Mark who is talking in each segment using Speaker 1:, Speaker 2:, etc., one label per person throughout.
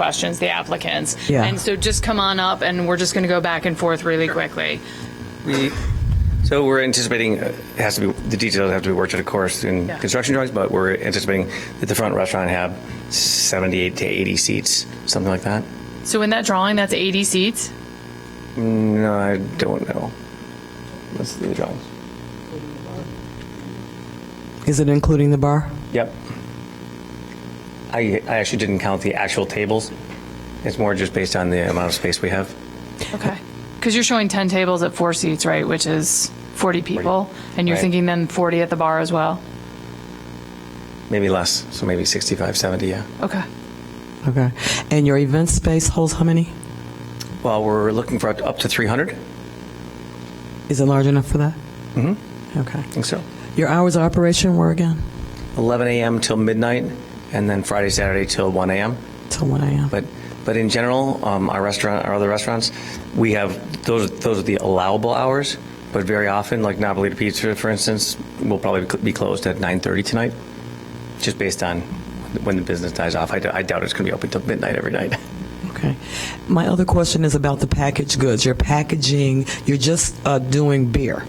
Speaker 1: questions, the applicants.
Speaker 2: Yeah.
Speaker 1: And so just come on up and we're just going to go back and forth really quickly.
Speaker 3: We, so we're anticipating, uh, it has to be, the details have to be worked out, of course, in
Speaker 1: Yeah.
Speaker 3: construction drawings, but we're anticipating that the front restaurant have 78 to 80 seats, something like that.
Speaker 1: So in that drawing, that's 80 seats.
Speaker 3: No, I don't know. Let's see the drawings.
Speaker 2: Is it including the bar?
Speaker 3: Yep. I, I actually didn't count the actual tables. It's more just based on the amount of space we have.
Speaker 1: Okay. Because you're showing 10 tables at four seats, right? Which is 40 people. And you're
Speaker 3: Right.
Speaker 1: thinking then 40 at the bar as well.
Speaker 3: Maybe less, so maybe 65, 70, yeah.
Speaker 1: Okay.
Speaker 2: Okay. And your event space holds how many?
Speaker 3: Well, we're looking for up to 300, I
Speaker 2: Is it large enough for that? Mm-hmm. Okay.
Speaker 3: think so.
Speaker 2: Your hours of operation were again?
Speaker 3: 11 a.m. till midnight, and then Friday, Saturday till 1 a.m.
Speaker 2: Till 1 a.m.?
Speaker 3: But, but in general, um, our restaurant, our other restaurants, we have, those, those are the allowable hours, but very often, like Napolita Pizza, for instance, will probably cl- be closed at 9:30 tonight, just based on when the business dies off. I d- I doubt it's going to be open till midnight every night.
Speaker 2: Okay. My other question is about the packaged goods. You're packaging, you're just uh, doing beer,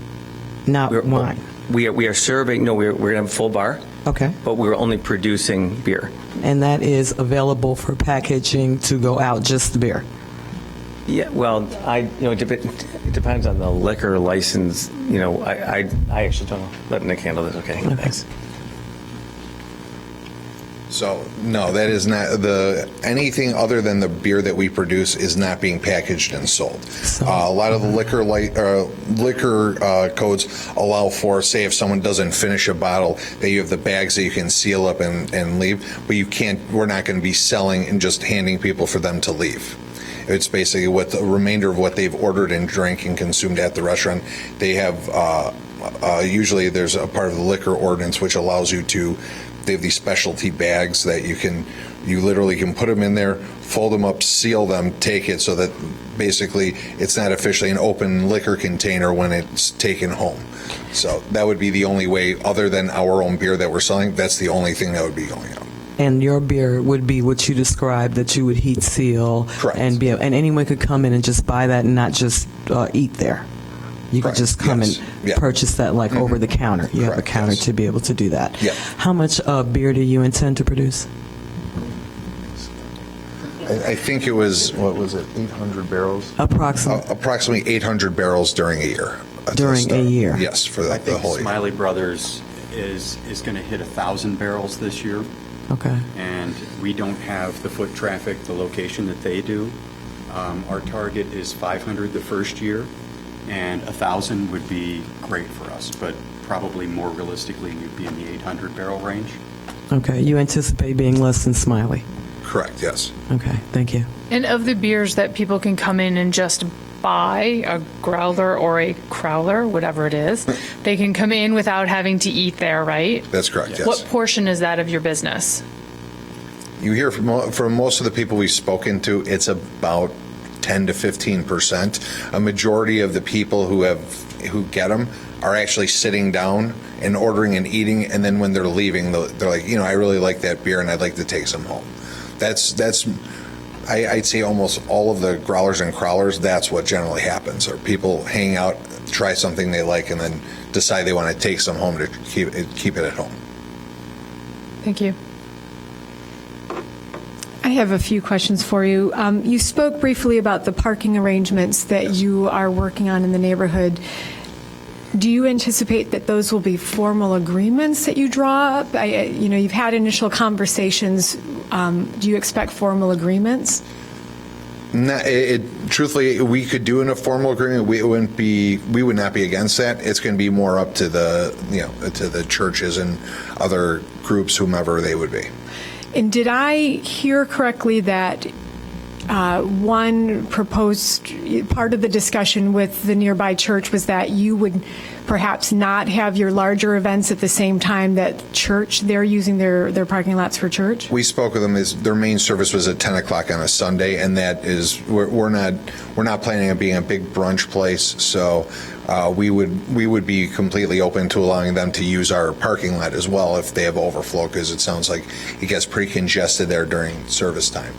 Speaker 2: not wine.
Speaker 3: We are, we are serving, no, we're, we're going to have a full bar,
Speaker 2: Okay.
Speaker 3: but we're only producing beer.
Speaker 2: And that is available for packaging to go out, just beer.
Speaker 3: Yeah, well, I, you know, it dep- it depends on the liquor license, you know, I, I, I actually don't know. Let Nick handle this, okay? Thanks.
Speaker 4: So no, that is not the anything other than the beer that we produce is not being packaged and sold. Uh, a lot of the liquor light, uh, liquor uh, codes allow for, say, if someone doesn't finish a bottle, that you have the bags that you can seal up and, and leave. But you can't. We're not going to be selling and just handing people for them to leave. It's basically what the remainder of what they've ordered and drank and consumed at the restaurant. They have uh, uh, usually there's a part of the liquor ordinance which allows you to. They have these specialty bags that you can, you literally can put them in there, fold them up, seal them, take it so that basically it's not officially an open liquor container when it's taken home. So that would be the only way, other than our own beer that we're selling, that's the only thing that would be going out.
Speaker 2: And your beer would be what you described that you would heat seal.
Speaker 4: Correct.
Speaker 2: And be, and anyone could come in and just buy that and not just uh, eat there. You could
Speaker 4: Correct.
Speaker 2: just come
Speaker 4: Yes.
Speaker 2: and
Speaker 4: Yeah. Mm-hmm.
Speaker 2: purchase that like over the counter. You have a
Speaker 4: Correct.
Speaker 2: counter
Speaker 4: Yes.
Speaker 2: to be able to do that.
Speaker 4: Yeah.
Speaker 2: How much uh, beer do you intend to produce?
Speaker 4: I, I think it was, what was it, 800 barrels?
Speaker 2: Approximately.
Speaker 4: Uh, approximately 800 barrels during a year. That's the
Speaker 2: During a
Speaker 4: start.
Speaker 2: year.
Speaker 4: Yes, for the,
Speaker 5: I
Speaker 4: the
Speaker 5: think
Speaker 4: whole year.
Speaker 5: Smiley Brothers is, is going to hit 1,000 barrels this year,
Speaker 4: uh.
Speaker 2: okay.
Speaker 5: and we don't have the foot traffic, the location that they do. Um, Our target is 500 the first year, and 1,000 would be great for us, but probably more realistically, you'd be in the 800 barrel range.
Speaker 2: Okay. You anticipate being less than Smiley.
Speaker 4: Correct, yes.
Speaker 2: Okay. Thank you.
Speaker 1: And of the beers that people can come in and just buy, a growler or a crowler, whatever it is, they can come in without having to eat there, right?
Speaker 4: That's correct,
Speaker 1: What
Speaker 4: yes.
Speaker 1: portion is that of your business?
Speaker 4: You hear from, mo- from most of the people we've spoken to, it's about 10 to 15%. A majority of the people who have, who get them are actually sitting down and ordering and eating. And then when they're leaving, they'll- they're like, you know, I really like that beer and I'd like to take some home. That's, that's, I, I'd say almost all of the growlers and crawlers, that's what generally happens. Or people hang out, try something they like, and then decide they want to take some home to keep it, keep it at home.
Speaker 1: Thank you.
Speaker 6: I have a few questions for you. Um, You spoke briefly about the parking arrangements that you are working on in the neighborhood. Do you anticipate that those will be formal agreements that you draw up? I- I- You know, you've had initial conversations. Um, Do you expect formal agreements?
Speaker 4: No, it, it truthfully, we could do in a formal agreement. We it wouldn't be, we would not be against that. It's going to be more up to the, you know, to the churches and other groups, whomever they would be.
Speaker 6: And did I hear correctly that uh, one proposed part of the discussion with the nearby church was that you would perhaps not have your larger events at the same time that church, they're using their, their parking lots for church?
Speaker 4: We spoke with them. Is their main service was at ten o'clock on a Sunday, and that is we're, we're not we're not planning on being a big brunch place. So uh, we would we would be completely open to allowing them to use our parking lot as well if they have overflow, because it sounds like it gets pretty congested there during service time.